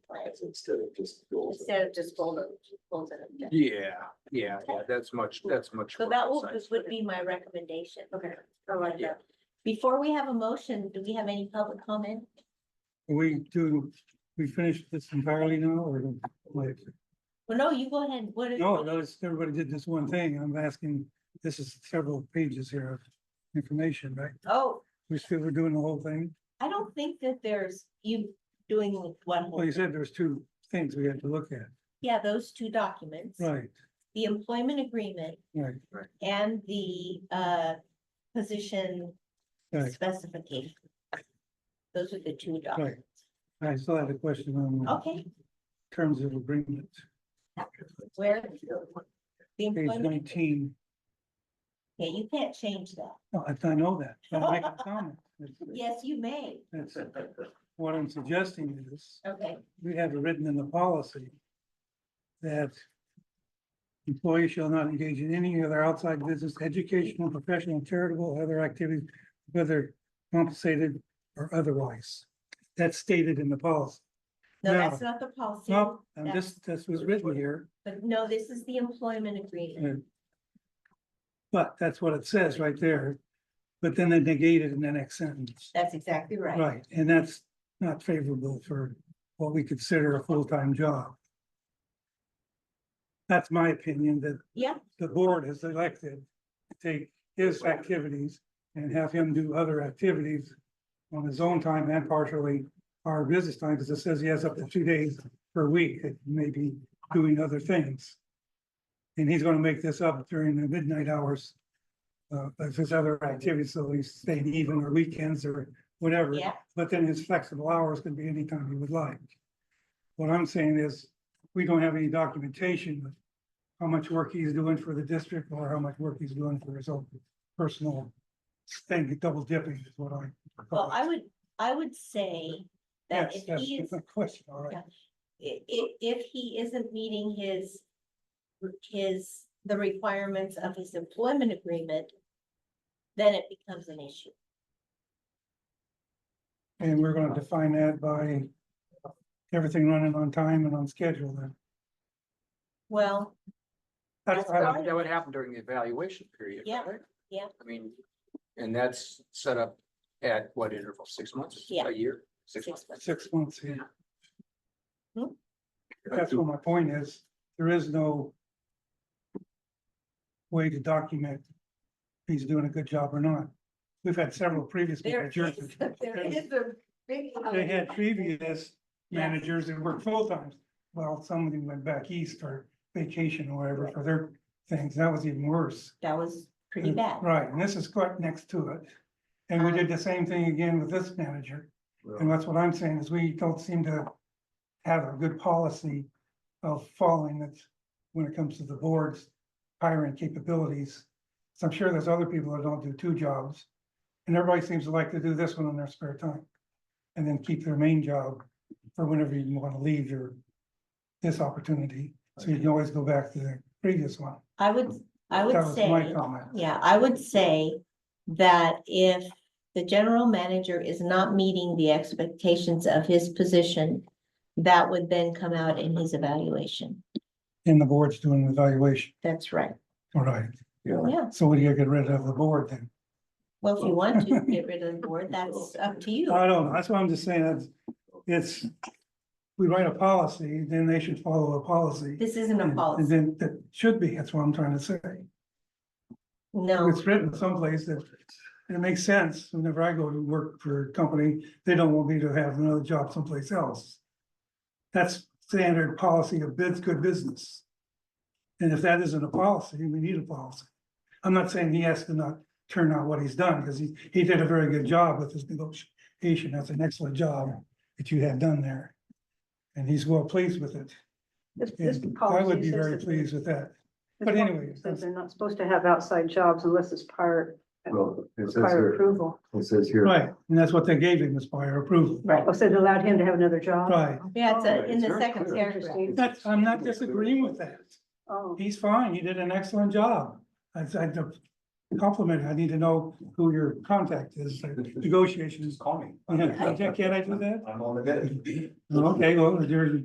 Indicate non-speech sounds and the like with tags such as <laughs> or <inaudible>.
lines instead of just. goals. instead of just bold it, bold it. up. Yeah, yeah, yeah, that's much, that's much. So more that will, precise. would be my recommendation. Okay. I like Yeah. that. Before we have a motion, do we have any public comment? We do, we finish this entirely now or? like- Well, no, you go ahead. What is? No, notice everybody did this one thing. I'm asking, this is several pages here of information, right? Oh, We still were doing the whole thing. I don't think that there's you doing with one. whole Well, you said there's two things we had to look at. Yeah, those two documents, Right, the employment agreement right, and the uh position right. specification. Those are the two Right. documents. I still had a question on the Okay, terms of agreement, where? The page employment. agreement. nineteen. Yeah, you can't change that. No, I I know that. I'm making a comment. That's- Yes, you may. That's, what I'm suggesting is. Okay, we have it written in the policy that employees shall not engage in any other outside business, educational, professional, charitable, or other activities, whether compensated or otherwise. That's stated in the policy. no, No. that's not the policy. No, I'm That's- just, this was written here, But no, this is the employment agreement. but that's what it says right there. But then they negate it in the next sentence. That's exactly right. Right, and that's not favorable for what we consider a full-time job. That's my opinion, that Yeah. the board has elected to take his activities and have him do other activities on his own time and partially our business time, because it says he has up to two days per week that he may be doing other things. And he's gonna make this up during the midnight hours uh, of his other activities, so he's staying even or weekends or whatever. Yeah, But then his flexible hours can be anytime he would like. What I'm saying is, we don't have any documentation of how much work he's doing for the district or how much work he's doing for his own personal thing, double dipping is what I. well, I would, I would say that Yes, if that's he is, a question, all right. Yeah. i- i- if he isn't meeting his, his, the requirements of his employment agreement, then it becomes an issue. And we're gonna define that by everything running on time and on schedule then. Well, That's, That I- would- that would happen during the evaluation period, Yeah, right? yeah. I mean, and that's set up at what interval, six months? Yeah. A year? six months. months. six months in. Hmm? That's what my point is, there is no way to document if he's doing a good job or not. We've had several previous there is, <laughs> managers, there is a big. they had previous Yeah. managers that worked full times. Well, some of them went back east for vacation or whatever for their things, that was even worse. That was pretty bad. Mm, Um, Right, and this is quite next to it. And we did the same thing again with this manager. And that's what I'm saying is we don't seem to have a good policy of following it when it comes to the board's hiring capabilities. So I'm sure there's other people that don't do two jobs. And everybody seems to like to do this one in their spare time. And then keep their main job for whenever you want to leave your, this opportunity. So you can always go back to the previous one. I would, I That would was my say, comment. yeah, I would say that if the general manager is not meeting the expectations of his position, that would then come out in his evaluation. And the board's doing an evaluation. That's right. All right. Yeah, So what do you get rid of the board then? well, if you <laughs> want to get rid of the board, that's up to you. I don't know, that's why I'm just saying, it's, it's, we write a policy, then they should follow a policy. This isn't a And- And policy. then that should be, that's what I'm trying to say. No, It's written someplace that it makes sense. Whenever I go to work for a company, they don't want me to have another job someplace else. That's standard policy of bids, good business. And if that isn't a policy, we need a policy. I'm not saying he has to not turn out what he's done, because he, he did a very good job with his negotiation. That's an excellent job that you had done there. And he's well pleased with it. This, this And I policy would be says very that- pleased with that. this but policy anyway, Says they're not supposed to have outside jobs unless it's prior, Well, it says prior here, approval. it says here. Right, and that's what they gave him is prior approval. right. Oh, so it allowed him to have another job? Right. Yeah, it's a- Right, in it's the very second clear. paragraph. Interesting. That's, I'm not disagreeing with that. Oh, He's fine. He did an excellent job. I said, compliment, I need to know who your contact <laughs> is, like, negotiations. Just call me. <laughs> Yeah, Can't I do that? I'm on the bid. Okay, well, you're,